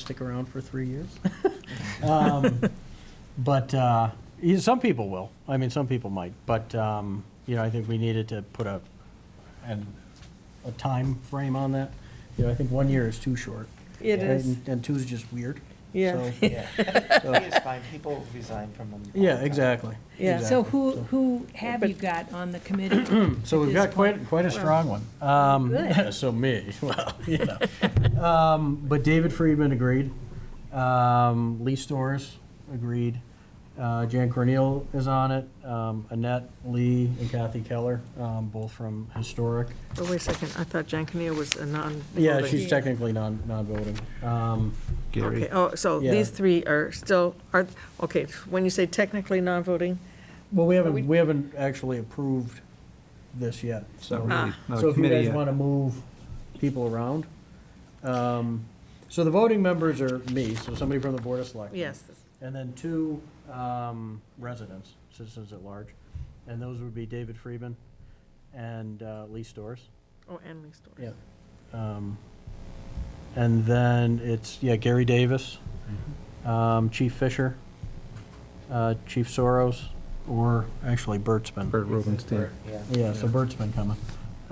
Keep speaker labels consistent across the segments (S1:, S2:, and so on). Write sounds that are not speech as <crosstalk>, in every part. S1: stick around for three years.
S2: <laughs> Um, But, uh, you- some people will. I mean, some people might. But, um, you know, I think we needed to put a, an, a time frame on that. You know, I think one year is too short.
S1: It
S2: right?
S1: is.
S2: And- And two's just weird.
S1: Yeah.
S2: So-
S3: <laughs> Yeah,
S2: so-
S3: it's fine, people resign from them. all the
S2: Yeah,
S3: time.
S2: exactly.
S1: <laughs> Yeah.
S4: So
S2: exactly.
S4: who, who have you got on the committee?
S2: So
S4: at
S2: we've
S4: this
S2: got quite,
S4: point?
S2: quite a strong one. Um, <laughs>
S4: Good.
S2: So me, well, you know. Um, But David Friedman agreed. Um, Lee Storrs agreed. Uh, Jan Corneal is on it. Um, Annette Lee and Kathy Keller, um, both from Historic.
S5: Oh, wait a second, I thought Jan Kinnear was a non.
S2: Yeah,
S5: voting.
S2: she's technically non, non-voting. Um,
S5: Okay, oh, so
S2: Yeah.
S5: these three are still, are, okay, when you say technically non-voting,
S2: Well, we haven't, we haven't actually approved this yet.
S6: It's not
S2: so-
S6: really,
S5: Ah.
S6: not
S2: So if
S6: a
S2: you
S6: committee
S2: guys
S6: yet.
S2: want to move people around, um, so the voting members are me, so somebody from the Board of Selectmen.
S5: yes,
S2: And then two um, residents, citizens at large, and those would be David Friedman and uh, Lee Storrs.
S5: oh, and Lee Storrs.
S2: Yeah. Um, And then it's, yeah, Gary Davis, um, Chief Fisher, uh, Chief Soros, or actually Bert's been.
S6: Bert Rubenstein.
S3: Yeah.
S2: Yeah, so
S6: Yeah.
S2: Bert's been coming.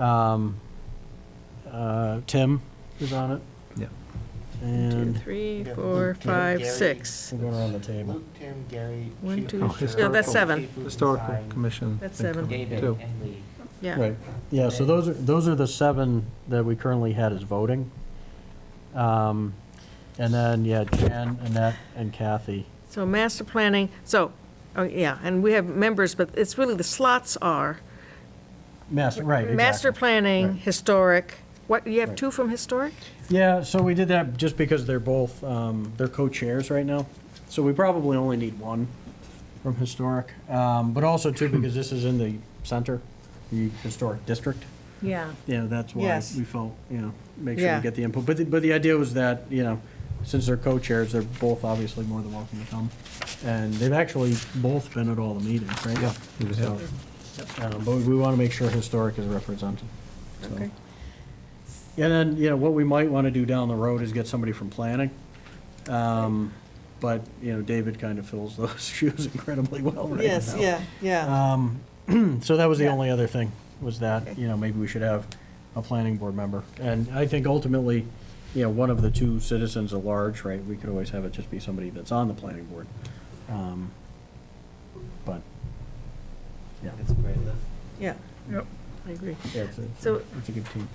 S2: Um, uh, Tim is on it.
S6: Yeah.
S5: Two,
S2: And
S5: three,
S3: Yeah.
S5: four,
S3: Luke,
S5: five,
S3: Gary.
S5: six.
S2: we're going around the table.
S3: Luke, Tim, Gary.
S5: One,
S3: Chief
S5: two,
S6: Oh,
S3: Fisher,
S6: historical-
S5: that's seven.
S3: people
S6: Historical
S3: resign,
S6: Commission.
S5: That's
S6: think,
S5: seven.
S3: David
S6: too.
S3: and Lee.
S5: Yeah,
S2: Right, yeah, so those are, those are the seven that we currently had as voting. Um, And then, yeah, Jan, Annette, and Kathy.
S5: so master planning, so, oh, yeah, and we have members, but it's really, the slots are
S2: Master, right,
S5: master
S2: exactly.
S5: planning,
S2: Right.
S5: historic, what, you have
S2: Right.
S5: two from historic?
S2: Yeah, so we did that just because they're both, um, they're co-chairs right now. So we probably only need one from historic, um, but also too, because this is in the center, the historic district.
S4: Yeah.
S2: Yeah, that's why
S5: Yes.
S2: we felt, you know, make sure
S5: Yeah.
S2: we get the input. But, the- but the idea was that, you know, since they're co-chairs, they're both obviously more than welcome to come. And they've actually both been at all the meetings, right?
S6: Yeah, they just
S2: So, um, But we want to make sure historic is represented. so.
S5: Okay.
S2: And then, you know, what we might want to do down the road is get somebody from planning. Um, But, you know, David kind of fills those <laughs> shoes incredibly well right now.
S5: yeah.
S2: Um, <clears throat> So that was the
S5: Yeah.
S2: only other thing, was that,
S5: Okay.
S2: you know, maybe we should have a planning board member. And I think ultimately, you know, one of the two citizens at large, right, we could always have it just be somebody that's on the planning board. Um, But, yeah,
S3: That's a great list.
S5: Yeah.
S6: Yep.
S5: I agree.
S2: yeah, it's a,
S5: So-
S2: it's a good team.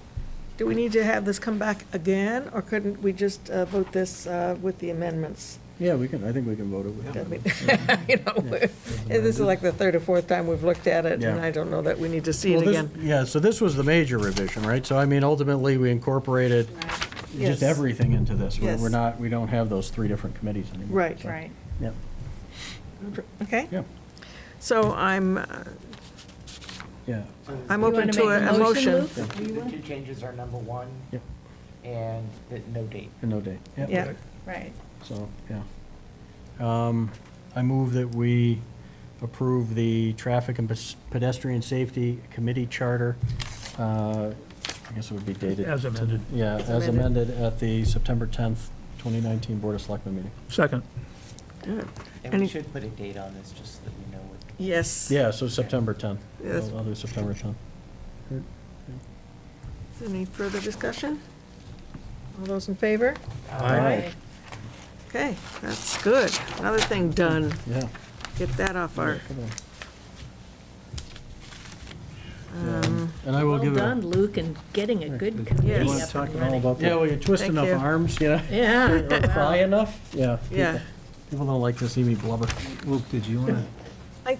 S5: Do we need to have this come back again, or couldn't we just uh, vote this uh, with the amendments?
S2: Yeah, we can, I think we can vote it
S5: I mean,
S2: with.
S5: <laughs> You know, we're- this is like the third or fourth time we've looked at it, and
S2: Yeah.
S5: I don't know that we need to see
S2: Well,
S5: it
S2: this-
S5: again.
S2: Yeah, so this was the major revision, right? So I mean, ultimately, we incorporated
S5: Yes.
S2: just everything into this. We're- We're
S5: Yes.
S2: not, we don't have those three different committees anymore.
S5: Right.
S2: so,
S4: Right.
S2: Yeah,
S5: Okay,
S2: yeah,
S5: so I'm, uh,
S2: yeah.
S3: So
S5: I'm
S3: the-
S5: open
S4: You wanna
S5: to
S4: make
S5: a a motion.
S4: Luke? Do you
S3: The
S4: want-
S3: two changes are number one
S2: Yep.
S3: and the no date.
S2: And no date.
S5: Yeah,
S4: Right.
S2: So, yeah. Um, I move that we approve the Traffic and Pes- Pedestrian Safety Committee Charter. uh, I guess it would be dated.
S7: As amended.
S2: Yeah, as
S5: amended.
S2: amended at the September 10th, 2019 Board of Selectmen meeting.
S7: Second.
S5: Good.
S3: And we
S5: Any-
S3: should put a date on this, just so that we know what.
S5: yes.
S2: Yeah, so September 10th.
S5: Yes.
S2: I'll do September 10th.
S5: Any further discussion? All those in favor?
S2: Aye.
S5: Okay, that's good. Another thing done.
S2: Yeah.
S5: Get that off our,
S2: Come on.
S5: um,
S2: And I will give it.
S4: Well
S2: a-
S4: done, Luke, and getting a good
S2: You
S4: committee
S2: wanna
S5: Yes.
S4: up
S2: talk
S4: and
S2: at all
S4: running.
S2: about that? Yeah, well, you twist
S5: Thank
S2: enough
S5: you.
S2: arms, you know? <laughs>
S4: Yeah.
S2: Or cry enough? Yeah.
S5: yeah.
S2: people- People don't like to see me blubber.
S6: Luke, did you want to?
S5: I
S6: you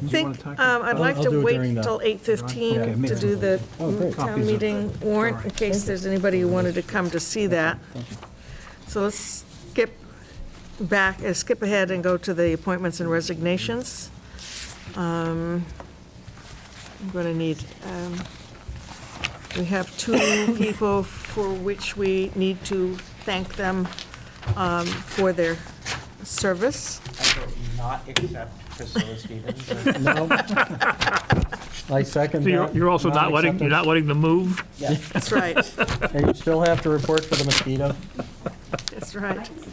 S6: wanna
S5: think,
S6: talk
S5: um, I'd
S2: about-
S5: like
S2: I'll-
S5: to
S2: I'll do it
S5: wait
S2: during the-
S5: till
S6: Okay,
S5: 8:15 to
S6: amazing.
S5: do the
S2: Oh, great.
S5: town
S6: Copies of-
S5: meeting warrant, in case there's anybody who wanted to come to see that. So let's skip back, uh, skip ahead and go to the appointments and resignations. Um, I'm going to need, um, we have
S2: <coughs>
S5: two people for which we need to thank them um, for their service.
S3: I vote not accept Priscilla Stevens. as-
S2: No. <laughs> I second
S7: So you're,
S2: that.
S7: you're also not letting, you're not
S2: Non-acceptance.
S7: letting them move?
S3: Yeah.
S2: <laughs>
S5: That's right,
S2: And you still have to report for the mosquito.
S5: that's right.